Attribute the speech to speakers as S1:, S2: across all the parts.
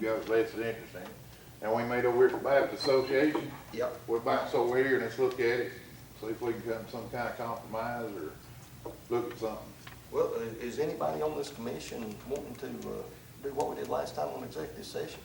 S1: goes, that's interesting. And we made a Weird Baptist Association,
S2: Yep,
S1: we're bounced over here and let's look at it, see if we can come to some kind of compromise or look at something.
S2: well, i- is anybody on this commission wanting to, uh, do what we did last time on executive session?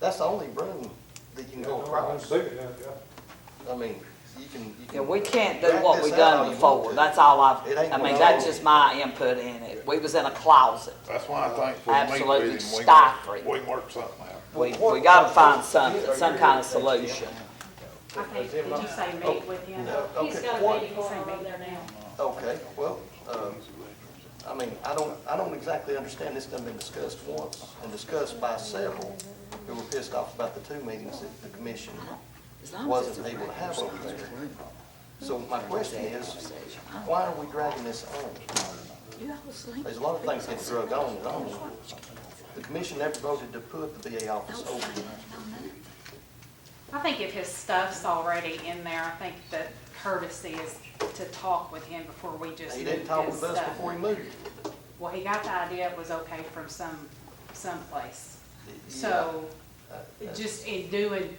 S2: That's the only room that you can go across. I mean, you can, you can.
S3: Yeah, we can't do
S2: drag
S3: what
S2: this
S3: we
S2: out all
S3: done
S2: you want
S3: before,
S2: to.
S3: that's all I've,
S2: It ain't
S3: I mean,
S2: gonna
S3: that's
S2: go.
S3: just my input in it. We was in a closet.
S1: That's why I think if we meet
S3: Absolutely
S1: with him, we
S3: stifling.
S1: can, we can work something out.
S3: We,
S2: Well,
S3: we gotta
S2: what-
S3: find something,
S2: Yeah,
S3: some
S2: are
S3: kind of
S2: you-
S3: solution.
S4: I think, did you say meet with him?
S2: Oh, No, okay.
S4: He's got a
S2: What-
S4: meeting going on over there now.
S2: Okay, well, um, I mean, I don't, I don't exactly understand, this done been discussed once and discussed by several who were pissed off about the two meetings that the commission
S3: As long as
S2: wasn't
S3: it's a
S2: able to have over there.
S1: Well,
S2: So my question is, why are we dragging this on?
S3: You all sleep.
S2: There's a lot of things that drug on and on. The commission never voted to put the VA office open.
S4: I think if his stuff's already in there, I think the courtesy is to talk with him before we just
S2: He
S4: move
S2: didn't talk
S4: his
S2: with us
S4: stuff.
S2: before he moved.
S4: Well, he got the idea it was okay from some, someplace. So,
S2: Uh,
S4: it just in doing,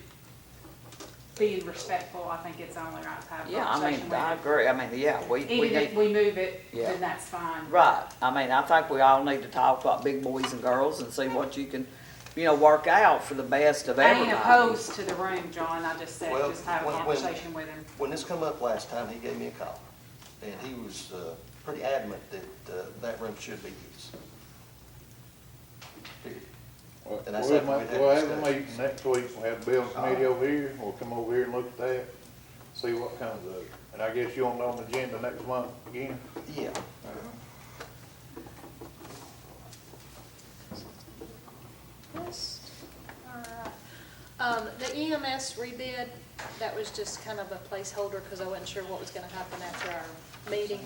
S4: being respectful, I think it's the only right type of
S3: Yeah, I mean,
S4: conversation.
S3: I agree, I mean, yeah, we, we
S4: Even if
S3: need,
S4: we move it,
S3: Yeah.
S4: then that's fine.
S3: right, I mean, I think we all need to talk like big boys and girls and see what you can, you know, work out for the best of
S4: I ain't
S3: everybody.
S4: opposed to the room, John, I just said,
S2: Well,
S4: just have a
S2: when- when-
S4: conversation with him.
S2: When this come up last time, he gave me a call, and he was uh, pretty adamant that uh, that room should be used. Period. And I
S1: We'll
S2: said
S1: make-
S2: we'd have
S1: we'll have a
S2: discussions.
S1: meeting next week, we'll have the building committee over here, we'll come over here and look at that, see what comes of it. And I guess you want it on the agenda next month again?
S2: Yeah.
S5: Alright. Um, the EMS rebid, that was just kind of a placeholder because I wasn't sure what was gonna happen after our meeting.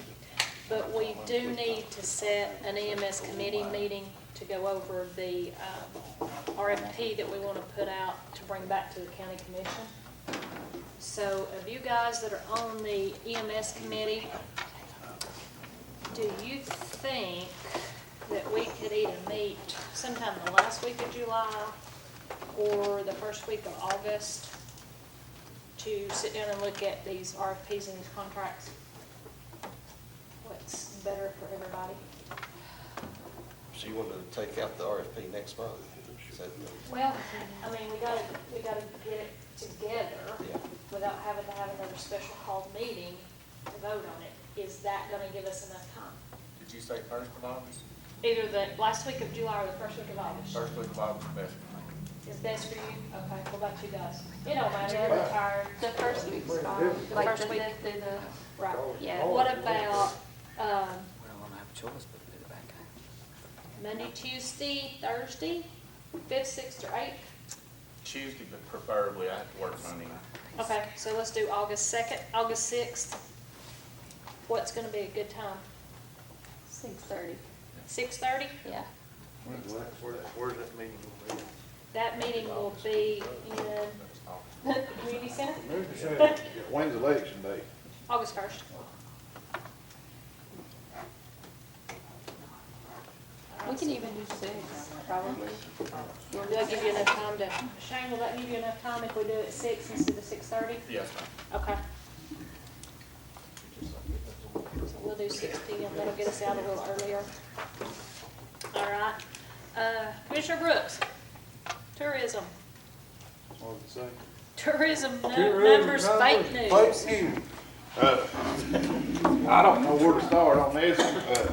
S5: But we do need to set an EMS committee meeting to go over the, um, RFP that we wanna put out to bring back to the county commission. So of you guys that are on the EMS committee, do you think that we could either meet sometime the last week of July or the first week of August to sit down and look at these RFPs and contracts? What's better for everybody?
S2: So you want to take out the RFP next month? Is that the-
S5: Well, I mean, we gotta, we gotta get it together
S2: Yeah.
S5: without having to have another special called meeting to vote on it. Is that gonna give us enough time?
S6: Did you say first of August?
S5: Either the last week of July or the first week of August?
S6: First week of August, best for
S5: Is best for you? Okay, what about you guys? It don't matter, they're retired.
S7: The first week's fine,
S5: The
S7: like
S5: first
S7: the,
S5: week.
S7: the, the, the-
S5: Right.
S7: yeah.
S5: What about, um,
S3: We don't wanna have a choice but to put it back out.
S5: Monday, Tuesday, Thursday, fifth, sixth, or eighth?
S6: me. Tuesday, but preferably I have to work Monday.
S5: Okay, so let's do August second, August sixth. What's gonna be a good time?
S7: six thirty,
S5: Six thirty?
S7: yeah.
S1: When's that?
S2: Where's that meeting going to be?
S5: That meeting will be in
S6: That's August.
S5: the community center,
S1: When's election day?
S5: August first.
S7: We can even do six, probably.
S5: Do I give you enough time to, Shane, will that give you enough time if we do it at six instead of six thirty?
S6: Yes, ma'am.
S5: Okay. So we'll do six P M, that'll get us out a little earlier. All right, uh, Commissioner Brooks, tourism,
S1: What's it say?
S5: tourism nu- numbers, fake news.
S1: Uh, I don't know where to start on this. Uh,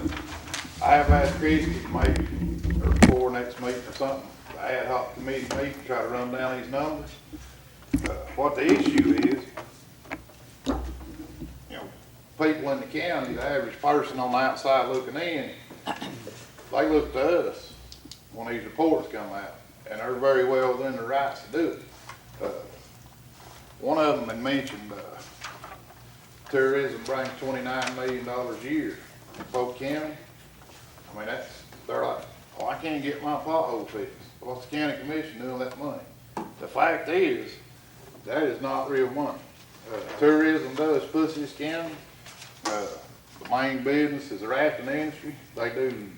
S1: I have asked Christie to make, or before next meeting or something, ad hoc committee meeting, try to run down these numbers. Uh, What the issue is, you know, people in the county, the average person on the outside looking in, they look to us when these reports come out, and they're very well within their rights to do it. Uh, One of them had mentioned, uh, tourism brings twenty-nine million dollars a year in Polk County. I mean, that's, they're like, oh, I can't get my pothole fixed. What's the county commission doing with that money? The fact is, that is not real money. Uh, Tourism does push this county. Uh, The main business is the rafting industry. They do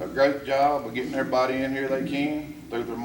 S1: a great job of getting everybody in here they can through their